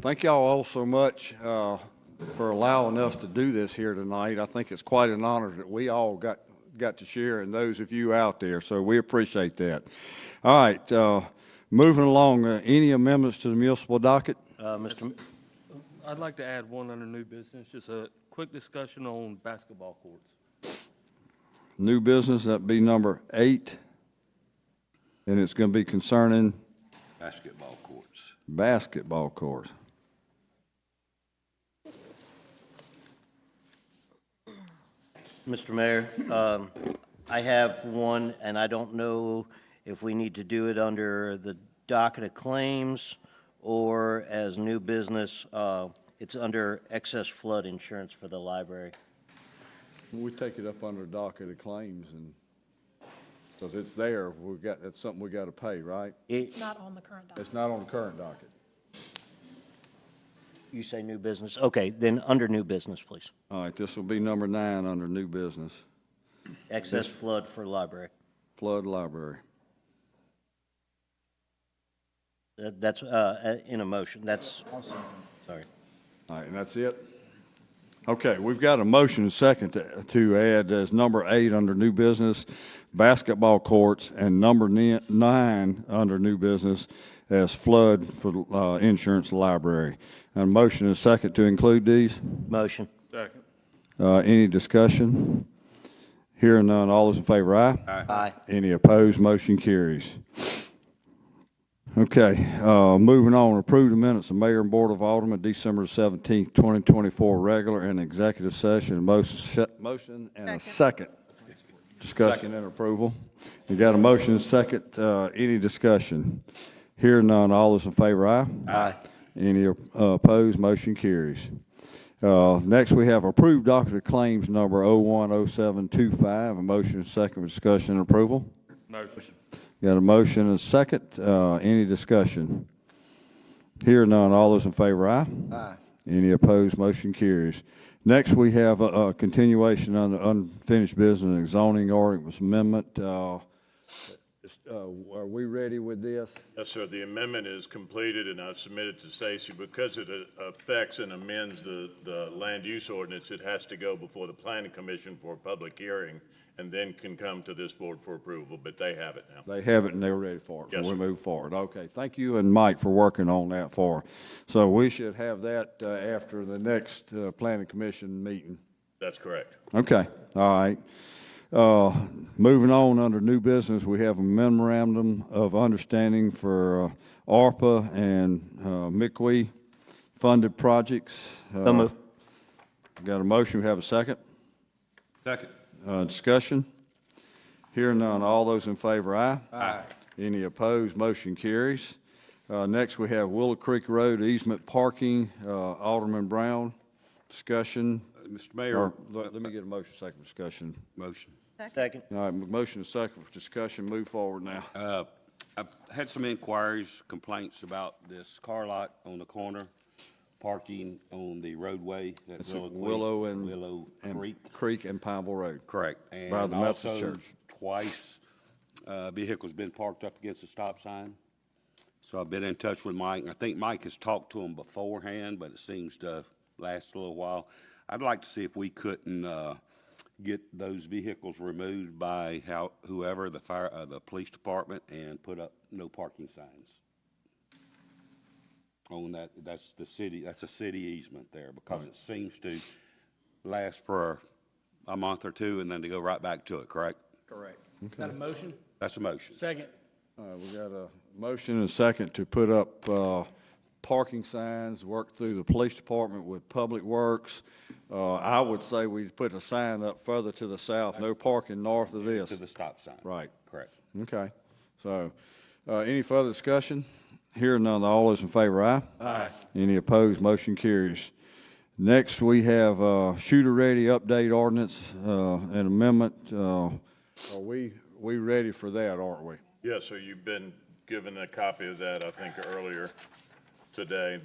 Thank y'all all so much uh, for allowing us to do this here tonight. I think it's quite an honor that we all got, got to share and those of you out there, so we appreciate that. All right, uh, moving along, uh, any amendments to the municipal docket? Uh, Mr. M- I'd like to add one under new business, just a quick discussion on basketball courts. New business, that'd be number eight, and it's going to be concerning basketball courts. basketball courts. Mr. Mayor, um, I have one, and I don't know if we need to do it under the docket of claims or as new business. Uh, It's under excess flood insurance for the library. We take it up under docket of claims and, because it's there, we've got, that's something we got to pay, right? It- It's not on the current document. It's not on the current docket. You say new business? Okay, then under new business, please. All right, this will be number nine under new business, Excess flood for library. flood library. That- That's uh, in a motion, that's, sorry. All right, and that's it? Okay, we've got a motion and second to, to add as number eight under new business, basketball courts, and number ni- nine under new business as flood for, uh, insurance library. And a motion and second to include these? Motion. Second. Uh, Any discussion? Hearing none, all those in favor, aye? Aye. Any opposed, motion carries. Okay, uh, moving on, approve the minutes of Mayor and Board of Aldermen, December seventeenth, twenty twenty-four, regular and executive session, motion, motion and a second. Discussion and approval. You got a motion, second, uh, any discussion? Hearing none, all those in favor, aye? Aye. Any uh, opposed, motion carries. Uh, Next, we have approved docket of claims number 010725, a motion and second for discussion and approval. Motion. Got a motion and a second, uh, any discussion? Here none, all those in favor, aye? Aye. Any opposed, motion carries. Next, we have a, a continuation on the unfinished business and zoning ordinance amendment. Uh, it's, uh, Are we ready with this? Yes, sir, the amendment is completed and I've submitted to Stacy. Because it uh, affects and amends the, the land use ordinance, it has to go before the planning commission for a public hearing and then can come to this board for approval, but they have it now. They have it and they're ready for it. Yes, so We sir. move forward. Okay, thank you and Mike for working on that for. So we should have that uh, after the next uh, planning commission meeting. That's correct. Okay, all right. Uh, Moving on, under new business, we have a memorandum of understanding for uh, ARPA and uh, MICWE funded projects. Uh, So moved. Got a motion, we have a second? Second. Uh, Discussion? Hearing none, all those in favor, aye? Aye. Any opposed, motion carries. Uh, Next, we have Willow Creek Road easement parking, uh, Alderman Brown, discussion. Mr. Or, Mayor, let let me get a motion, second for discussion. motion. Second. All right, m- motion is second for discussion, move forward now. Uh, I've had some inquiries, complaints about this car lot on the corner, parking on the roadway at It's at Willow Creek. Willow and. Willow and Creek. Creek and Pineville Road. Correct. By the Methodist And also, Church. twice, uh, vehicles been parked up against the stop sign. So I've been in touch with Mike, and I think Mike has talked to him beforehand, but it seems to last a little while. I'd like to see if we couldn't, uh, get those vehicles removed by how, whoever, the fire, uh, the police department, and put up no parking signs. On that, that's the city, that's a city easement there, because it seems to last for a month or two, and then to go right back to it, correct? Correct. Got a motion? That's a motion. Second. All right, we got a motion and a second to put up uh, parking signs, work through the police department with Public Works. Uh, I would say we put a sign up further to the south, no parking north of this. To the stop sign. Right. Correct. Okay, so, uh, any further discussion? Hearing none, all those in favor, aye? Aye. Any opposed, motion carries. Next, we have, uh, shooter ready update ordinance, uh, an amendment, uh, are we, we ready for that, aren't we? Yes, sir, you've been given a copy of that, I think, earlier today.